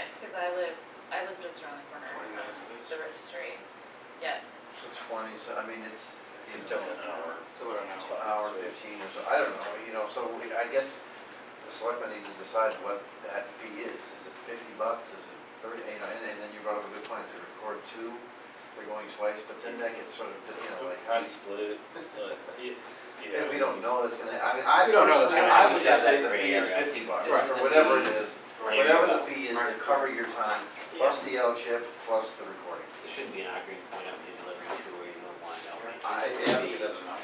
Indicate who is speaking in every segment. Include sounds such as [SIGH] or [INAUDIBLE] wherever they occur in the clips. Speaker 1: live, I live just around the corner from
Speaker 2: 29 days.
Speaker 1: the registry. Yeah,
Speaker 3: So twenty, so I mean, it's, it's
Speaker 4: It's
Speaker 3: a
Speaker 4: about an hour.
Speaker 2: It's about an
Speaker 3: an hour
Speaker 2: hour.
Speaker 3: fifteen or so, I don't know, you know, so we- I guess the selectmen need to decide what that fee is. Is it fifty bucks, is it thirty, you know, and and then you brought up a good point, they record two, they're going twice, but then that gets sort of, you know, like, how
Speaker 4: I
Speaker 3: do you-
Speaker 4: split it, but, y- yeah.
Speaker 3: and we don't know that's gonna, I mean, I
Speaker 2: We don't know that's
Speaker 3: personally,
Speaker 2: gonna
Speaker 3: I would
Speaker 2: happen.
Speaker 3: just say
Speaker 5: It's
Speaker 3: the
Speaker 5: that
Speaker 3: fee
Speaker 5: gray
Speaker 3: is
Speaker 5: area.
Speaker 3: fifty bucks,
Speaker 5: This is
Speaker 3: or
Speaker 5: the
Speaker 3: whatever it
Speaker 5: fee.
Speaker 3: is.
Speaker 4: Right.
Speaker 3: Whatever the fee is to
Speaker 2: Right.
Speaker 3: cover your time, plus the yellow chip, plus the recording.
Speaker 5: It shouldn't be an arguing point of the delivery to where you don't want that one.
Speaker 3: I-
Speaker 5: It's
Speaker 3: yeah.
Speaker 5: gonna be-
Speaker 2: It doesn't help.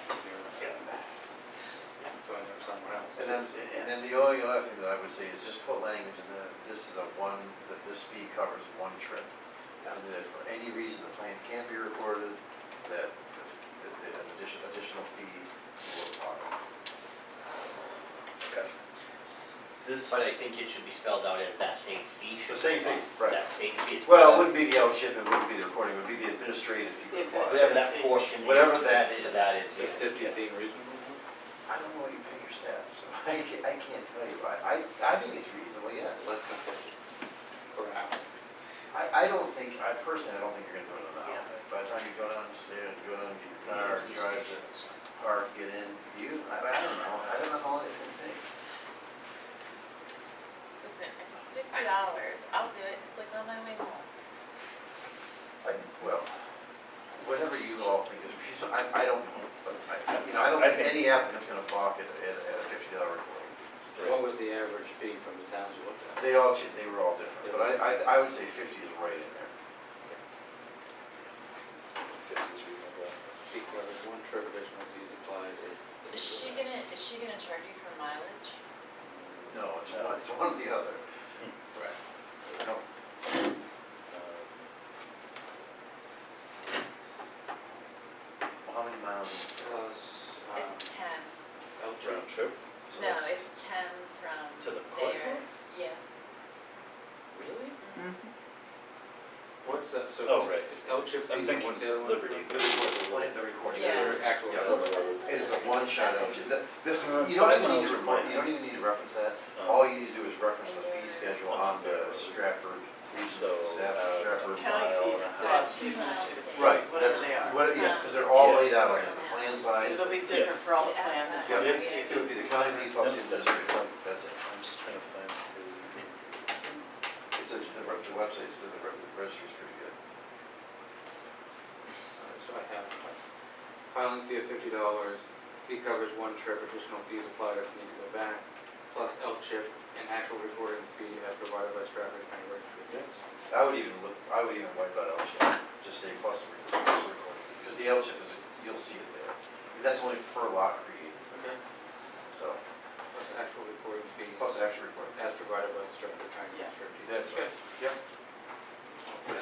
Speaker 2: You're
Speaker 5: Yeah.
Speaker 2: going to someone else.
Speaker 3: And then, and then the only other thing that I would say is just put language in that this is a one, that this fee covers one trip. And that if for any reason the plan can't be recorded, that, that the addition- additional fees will apply.
Speaker 5: Okay.
Speaker 4: This,
Speaker 5: But I think it should be spelled out as that same fee. should
Speaker 3: The same
Speaker 5: be-
Speaker 3: thing, right.
Speaker 5: That same fee. it's
Speaker 3: Well, it
Speaker 5: spelled out-
Speaker 3: wouldn't be the yellow chip, it wouldn't be the recording, it would be the administrative fee.
Speaker 1: Yeah, that's-
Speaker 5: Whatever that portion is.
Speaker 3: Whatever that
Speaker 5: for
Speaker 3: is.
Speaker 5: That is,
Speaker 2: Does
Speaker 5: yes.
Speaker 2: fifty seem reasonable?
Speaker 3: I don't know what you pay your staff, so [LAUGHS] I can't, I can't tell you, I, I, I think it's reasonable, yes.
Speaker 2: Less than fifty. For an hour.
Speaker 3: I, I don't think, I personally, I don't think you're gonna do it on that. By the time you go downstairs, go down to your car, drive to park, get in, you, I, I don't know, I don't know how long it's gonna take.
Speaker 1: listen, if it's fifty dollars, I'll do it. It's like on my way home.
Speaker 3: I, well, whatever you all think is reasonable, I, I don't know, but I, I- you know, I don't
Speaker 4: I
Speaker 3: think
Speaker 4: think-
Speaker 3: any applicant's gonna balk at, at, at a fifty dollar recording.
Speaker 2: What was the average fee from the towns you looked at?
Speaker 3: They all, ch- they were all different, but I, I, I would say fifty is right in there.
Speaker 4: Fifty's reasonable.
Speaker 2: Fee covers one trip, additional fees applied if. if-
Speaker 1: Is she gonna, is she gonna charge you for mileage?
Speaker 3: No, it's one, it's one or the other. Right. I don't,
Speaker 4: uh,
Speaker 3: how many miles? is it?
Speaker 2: Plus, um,
Speaker 1: It's ten.
Speaker 2: L-
Speaker 4: Round trip?
Speaker 3: Uh, So
Speaker 1: No,
Speaker 3: that's-
Speaker 1: it's ten from
Speaker 4: To the court
Speaker 1: there. Yeah.
Speaker 4: Really?
Speaker 1: Mm-hmm.
Speaker 2: What's that, so.
Speaker 4: Oh, right.
Speaker 2: it's L chip
Speaker 4: I'm
Speaker 2: fees,
Speaker 4: thinking
Speaker 2: what's the other one?
Speaker 4: Liberty.
Speaker 3: Like the recording.
Speaker 1: Yeah.
Speaker 2: Your actual.
Speaker 3: Yeah.
Speaker 1: Well, what is the-
Speaker 3: Uh, It is a one-shot option. The- the-
Speaker 4: that's
Speaker 3: you don't
Speaker 4: fine.
Speaker 3: even need
Speaker 4: Those
Speaker 3: to
Speaker 4: are
Speaker 3: record,
Speaker 4: mine.
Speaker 3: you don't even need to reference that.
Speaker 4: Um,
Speaker 3: All you need to do is reference the
Speaker 1: Yeah.
Speaker 3: fee schedule on the Stratford,
Speaker 4: So,
Speaker 3: Stafford,
Speaker 4: uh,
Speaker 3: Stratford.
Speaker 6: County
Speaker 4: mile
Speaker 6: fees,
Speaker 4: and a
Speaker 1: So
Speaker 4: half.
Speaker 1: it's two miles to.
Speaker 3: Right,
Speaker 6: Whatever
Speaker 3: that's,
Speaker 6: they are.
Speaker 3: what, yeah, because they're all
Speaker 4: Yeah.
Speaker 3: laid out on the plan size.
Speaker 6: It'll be
Speaker 3: It
Speaker 6: different for all the
Speaker 1: Yeah.
Speaker 6: plans.
Speaker 1: Yeah.
Speaker 3: Yeah.
Speaker 1: Yeah.
Speaker 3: would be the county fee plus the administrative, fee. that's it.
Speaker 4: I'm just trying to find the,
Speaker 3: It's a, the re- the website's, the re- the registry's pretty good.
Speaker 2: Uh, So I have filing fee of fifty dollars, fee covers one trip, additional fees applied if need to go back, plus L chip and actual recording fee as provided by Stratford County Registry.
Speaker 3: I would even look, I would even wipe out L chip, just say plus the recording, plus the recording, because the L chip is, you'll see it there. That's only per lot created,
Speaker 2: Okay.
Speaker 3: so,
Speaker 2: Plus actual recording fee
Speaker 3: plus actual recording.
Speaker 2: as provided by Stratford
Speaker 6: Yeah.
Speaker 2: County Registry.
Speaker 3: That's right. Yep.
Speaker 2: Okay.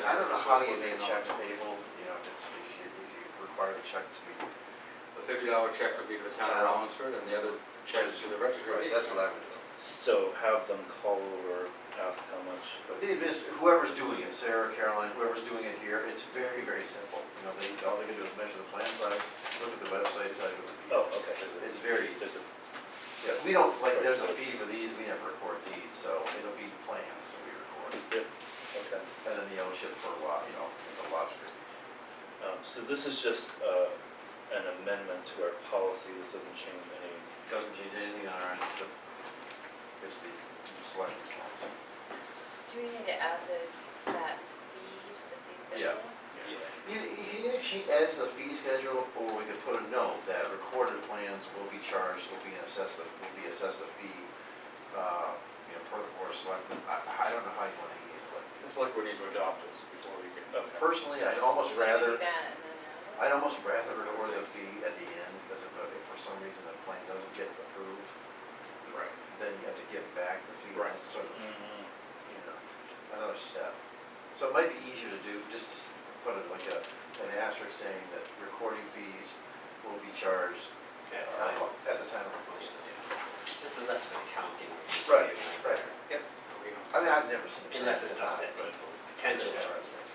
Speaker 3: I don't know how you make a check payable, you know, if it's, if you, if you require the check to be.
Speaker 2: The fifty dollar check would be for the town of Rollinsford and the other check is to the registry.
Speaker 3: That's what I would do.
Speaker 4: so have them call over, ask how much.
Speaker 3: But the adminis, whoever's doing it, Sarah, Caroline, whoever's doing it here, it's very, very simple. You know, they, all they can do is measure the plan size, look at the website, tell you what the fee
Speaker 4: Oh,
Speaker 3: is.
Speaker 4: okay, there's
Speaker 3: It's very,
Speaker 4: a, there's a,
Speaker 3: yeah, we don't, like, there's a fee for these, we never record these, so it'll be plans that we record.
Speaker 4: okay.
Speaker 3: And then the ownership for a lot, you know, the lot street.
Speaker 4: Um, so this is just, uh, an amendment to our policy, this doesn't change any,
Speaker 3: Doesn't change anything on our end, except it's the selectmen's policy.
Speaker 1: Do we need to add this, that fee to the fee
Speaker 3: Yeah.
Speaker 1: schedule?
Speaker 4: yeah,
Speaker 3: You, you can either she- add to the fee schedule, or we could put a note that recorded plans will be charged, will be assessed, a- will be assessed a fee, uh, you know, per the board of selectmen. I, I don't know how you want to handle it.
Speaker 2: It's like we need to adopt this before we can.
Speaker 4: okay.
Speaker 3: Personally, I'd almost
Speaker 1: So we do that
Speaker 3: rather,
Speaker 1: and then add it?
Speaker 3: I'd almost rather record the fee at the end, because if, uh, if for some reason the plan doesn't get approved,
Speaker 2: Right.
Speaker 3: then you have to give back the fee,
Speaker 2: Right.
Speaker 3: That's sort of,
Speaker 4: Mhm.
Speaker 3: you know, another step. So it might be easier to do, just to s- put it like a, an asterisk saying that recording fees will be charged
Speaker 5: At
Speaker 3: uh,
Speaker 5: time.
Speaker 3: at the time of posting.
Speaker 5: Just unless it's accounting.
Speaker 3: Right, right, yep.
Speaker 2: We don't-
Speaker 3: I mean, I've never seen it.
Speaker 5: Unless it's upset
Speaker 3: But
Speaker 5: people, potential for upset people.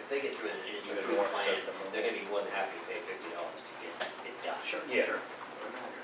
Speaker 5: If they get through an
Speaker 4: You're
Speaker 5: incident
Speaker 4: gonna want to
Speaker 5: plan,
Speaker 4: set them up.
Speaker 5: they're gonna be more than happy to pay fifty dollars to get it done.
Speaker 3: Sure,
Speaker 4: Yeah.
Speaker 3: sure.
Speaker 2: we don't-